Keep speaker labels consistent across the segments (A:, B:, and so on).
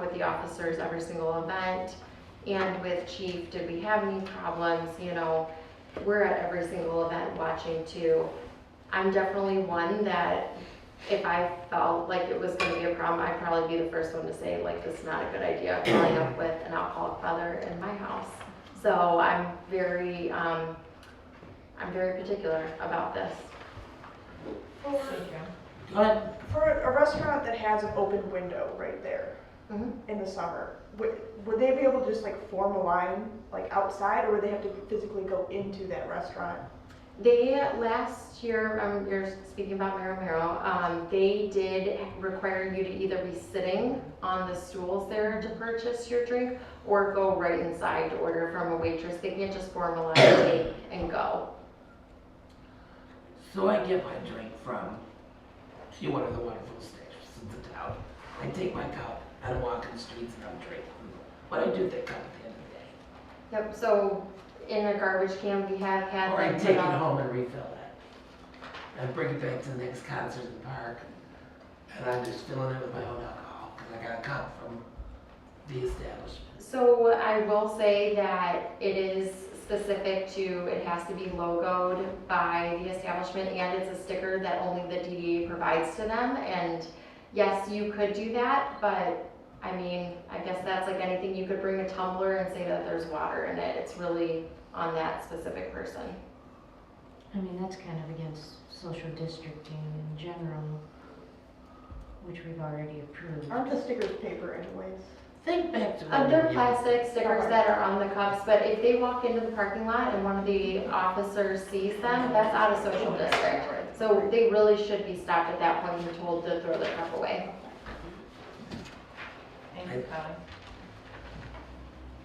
A: with the officers every single event and with chief, did we have any problems, you know? We're at every single event watching too. I'm definitely one that if I felt like it was gonna be a problem, I'd probably be the first one to say like, this is not a good idea, pulling up with an alcoholic father in my house. So I'm very, um, I'm very particular about this.
B: For
C: Go ahead.
B: for a restaurant that has an open window right there
A: Mhm.
B: in the summer, would, would they be able to just like form a line like outside or would they have to physically go into that restaurant?
A: They, last year, um, you're speaking about Mayor Romero, um, they did require you to either be sitting on the stools there to purchase your drink or go right inside to order from a waitress. They can't just form a line, take and go.
C: So I get my drink from, you one of the wonderful stations in the town. I take my cup and walk in the streets and I'm drinking. But I do that cup at the end of the day.
A: Yep, so in a garbage can, we have had.
C: Or I
A: them
C: take it
A: put up-
C: home and refill it. And bring it back to the next concert in the park. And I'm just filling it with my own alcohol, because I got a cup from the establishment.
A: So I will say that it is specific to, it has to be logoed by the establishment and it's a sticker that only the DDA provides to them. And yes, you could do that, but I mean, I guess that's like anything, you could bring a tumbler and say that there's water in it. It's really on that specific person.
D: I mean, that's kind of against social districting in general, which we've already approved.
B: Aren't the stickers paper anyways?
C: Think back to.
A: Uh,
C: when
A: They're
C: you-
A: plastic stickers that are on the cups, but if they walk into the parking lot and one of the officers sees them, that's out of social district. So they really should be stopped at that point and told to throw the cup away.
E: Thank you, Kelly.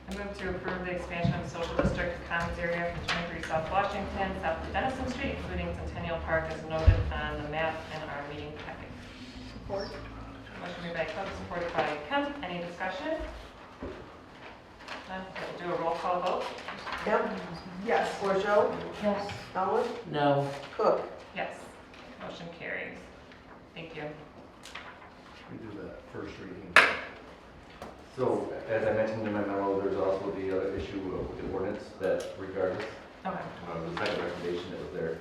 E: I move to approve the expansion of social district commons area from 23 South Washington, south to Dennison Street, including Centennial Park as noted on the map in our meeting packet.
B: Support.
E: Motion made by Cook, supported by Kemp. Any discussion? None. We'll Do a roll call vote?
F: Kemp? Yes. Borjo?
D: Yes,
F: Elwood?
C: No,
F: Cook?
E: Yes. Motion carries. Thank you.
G: We do the first reading. So, as I mentioned in my memo, there's also the other issue of the ordinance that regardless
E: Okay.
G: of the second recommendation that was there.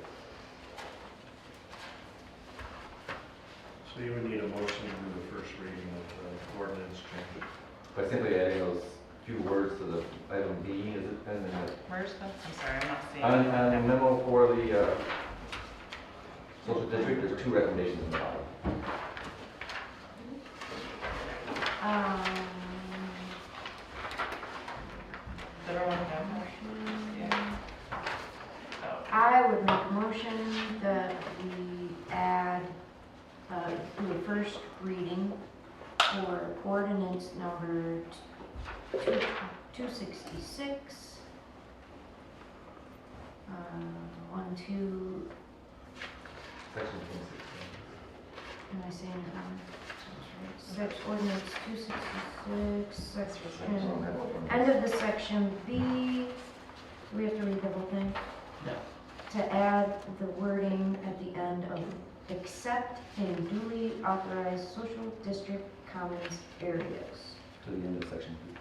H: So you would need a motion to do the first reading of the ordinance change.
G: By simply adding those few words to the item B, is it, and then
E: Where's the, I'm sorry, I'm not
G: the-
E: seeing.
G: on, on the memo for the, uh, social district, there's two recommendations in the bottom.
D: um,
E: Does everyone have one?
D: Mm-hmm.
E: Yeah. Oh.
D: I would make a motion that we add, uh, to the first reading for ordinance number two, two sixty-six. Uh, one, two,
G: Section 26.
D: Am I saying it wrong? So that's ordinance two sixty-six,
G: So
D: section,
G: that's one.
D: end of Mm. the section B. We have to read the whole thing?
C: No.
D: To add the wording at the end of, except in duly authorized social district commons areas.
G: To the end of section B.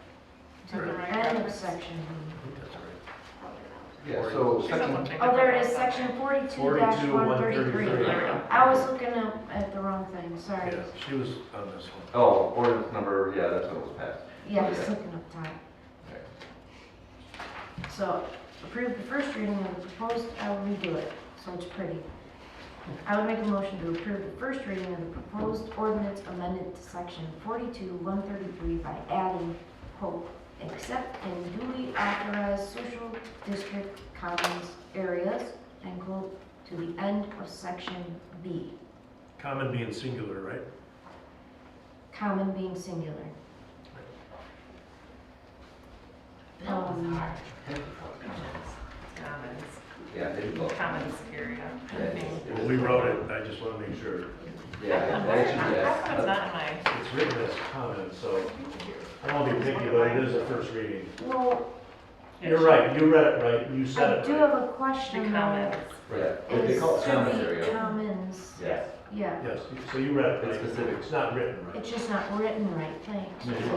D: To the
E: Right.
D: end of section B.
H: That's right.
G: Yeah, so
E: She said
G: section,
E: something
D: Oh, there
E: different
D: it is,
E: about
D: section
E: something.
D: forty-two
H: Forty-two,
D: one
H: one thirty-three.
D: thirty-three.
E: There we go.
D: I was looking up at the wrong thing, sorry.
H: Yeah, she was on this one.
G: oh, ordinance number, yeah, that's what was passed.
D: Yeah, I was looking up top.
G: Okay.
D: So approve the first reading of the proposed, I will redo it, so it's pretty. I would make a motion to approve the first reading of the proposed ordinance amended to section forty-two, one thirty-three by adding, quote, except in duly authorized social district commons areas, end quote, to the end of section B,
H: Common being singular, right?
D: common being singular.
C: that was
D: Um,
C: hard.
E: Commons,
G: Yeah, they did both.
E: commons area.
G: Yeah, it's-
H: Well, we wrote it, I just want to make sure.
G: Yeah,
E: How
G: that
E: come
G: actually, yes.
E: it's not in my,
H: It's written as common, so I won't be picky, but it is a first reading.
D: Well,
H: You're right, you read it right, you
D: I
H: said it
D: do
H: right.
D: have a question
E: the
D: though.
E: commons?
G: Yeah, but they
D: Is
G: call it common
D: to the
G: area.
D: commons,
G: Yes.
D: yeah.
H: Yes, so you read it right.
G: It's specific.
H: It's not written right.
D: It's just not written right, thanks.
G: No, you're